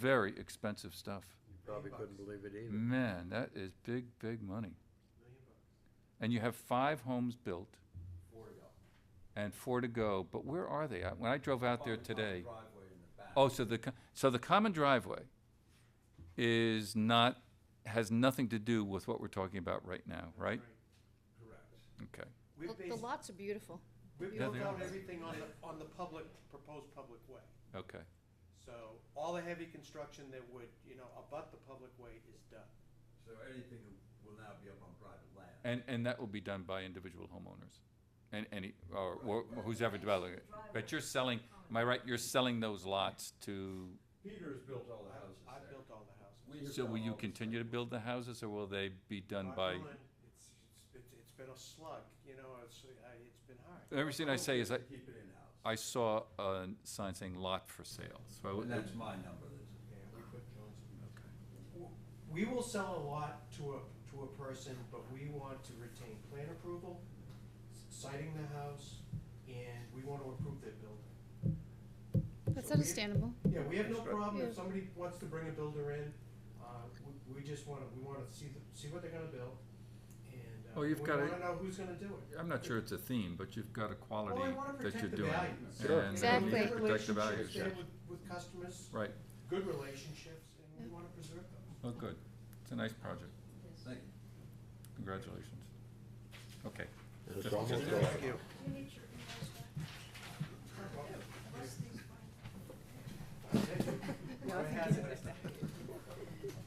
very expensive stuff. You probably couldn't believe it either. Man, that is big, big money. And you have five homes built. And four to go, but where are they? I- When I drove out there today. Oh, so the, co- so the common driveway is not, has nothing to do with what we're talking about right now, right? Correct. Okay. We Look, The based, lots are beautiful. we Yeah, built they out are. everything on the, on the public, proposed public way. Okay, So all the heavy construction that would, you know, abut the public way is done. So anything will now be up on private land. and, and that will be done by individual homeowners, and any, or, or who's ever developing it. But you're selling, am I right, you're selling those lots to, Peter's built all the I- houses I there. built all the houses. We have so done will you all the continue to stuff. build the houses, or will they be done Knock by? on wood, It's, it's, it's been a slug, you know, it's, I- it's been hard. Everything I say is I, Keep it in-house. I saw a sign saying lot for sale, so I And would- that's my number, that's. We will sell a lot to a, to a person, but we want to retain plan approval, s- citing the house, and we want to approve their building. That's So we- understandable. Yeah, we have no Construct- problem Yeah. if somebody wants to bring a builder in, uh, we, we just wanna, we wanna see, the- see what they're gonna build, and, uh, Well, we you've gotta- wanna know who's gonna do it. I'm not sure it's a theme, but you've got a quality Well, I wanna that protect you're the doing. value. and you Exactly. need to Protect the Relationships values, there with, with customers, right, good relationships, and we wanna preserve those. oh, good, it's a nice project, Thank you. congratulations. Okay. It's almost like, You need your emails back. Unless these find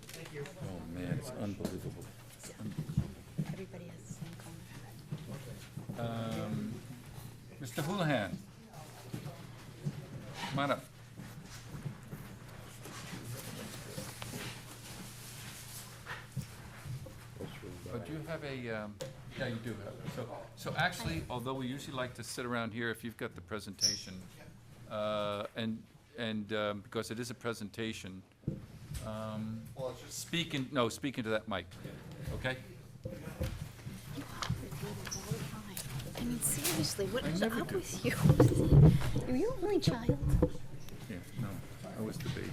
Thank you. Oh, man, it's unbelievable. Everybody has the same comment. Um, Mr. Houlihan. Come on up. But you have a, um, yeah, you do have, so, so actually, although we usually like to sit around here if you've got the presentation, uh, and, and, um, because it is a presentation, um, speak in, no, speak into that mic, okay? You are. I mean, seriously, what I is never up do. with you? Are you only child? Yeah, no, I was the baby.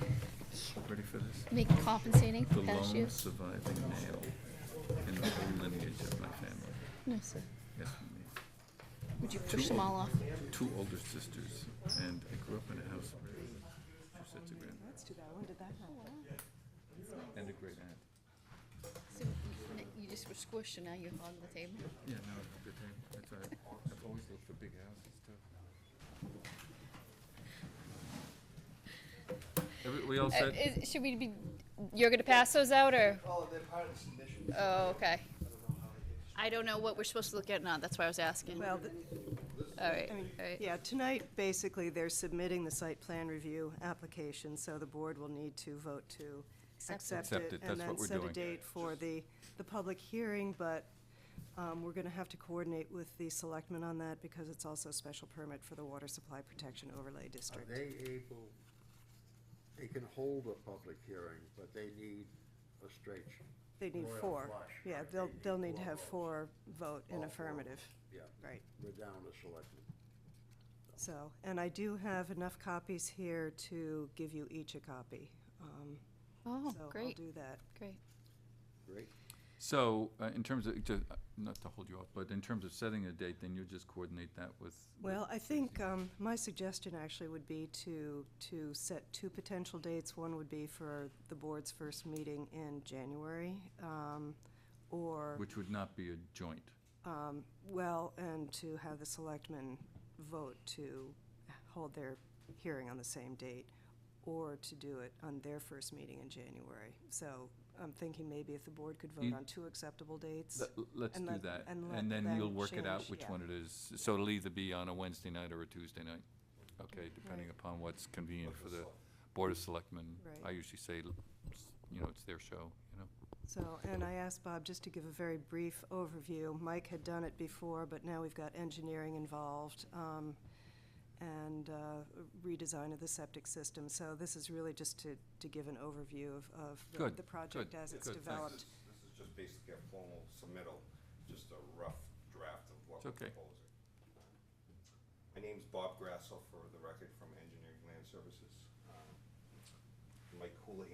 Ready for this? Make compensating The for past lone years? surviving male in the whole lineage of my family. No, sir. Yes, me. Would you push them all off? Two older sisters, and I grew up in a house with two sets of grandparents and a great aunt. So You just were squished and now you hog the table? Yeah, no, it's a good thing. That's all right. I've always looked for big houses too. Every, we all Uh, said, is- Should we be, you're gonna pass those out, or? Oh, they're part of the submission. Oh, okay. I don't know how they get I don't know what we're supposed to look at now, that's why I was asking. Well, All th- right, I all mean, right. yeah, tonight, basically, they're submitting the site plan review application, so the board will need to vote to Accept it. accept Accept it. it, that's what we're And doing. then set a date for the, the public hearing, but um, we're going to have to coordinate with the selectmen on that because it's also a special permit for the Water Supply Protection Overlay are District. they able, they can hold a public hearing, but they need a straight, They need Royal four. flush, Yeah, right, they'll, they need they'll need to four have votes. four vote All in four. affirmative, yeah, right. we're down to selectmen. So, and I do have enough copies here to give you each a copy. Um, Oh, So I'll great, do that. great. Great. so, uh, in terms of, to- uh, not to hold you off, but in terms of setting a date, then you just coordinate that with. with Well, I think um, my suggestion actually would be to, to set two potential dates. One would be for the board's first meeting in January, um, or, Which would not be a joint. um, well, and to have the selectmen vote to hold their hearing on the same date, or to do it on their first meeting in January. So I'm thinking maybe if the board could vote You- on two acceptable dates. Let- Let's and do let- that, and and let then you'll them work it out change, which yeah. one it is. So it'll either be on a Wednesday night or a Tuesday night, okay, depending upon what's convenient for the Board of Selectmen. Right. I usually say, l- s- you know, it's their show, you know? So, and I asked Bob just to give a very brief overview. Mike had done it before, but now we've got engineering involved um, and uh, redesign of the septic system. So this is really just to, to give an overview of, of the- Good, the project good, as it's good, thanks. developed. This is just basically a formal submittal, just a rough draft of what It's we're okay. proposing. My name's Bob Grassel, for the record, from Engineering Land Services. Um, Mike Cooley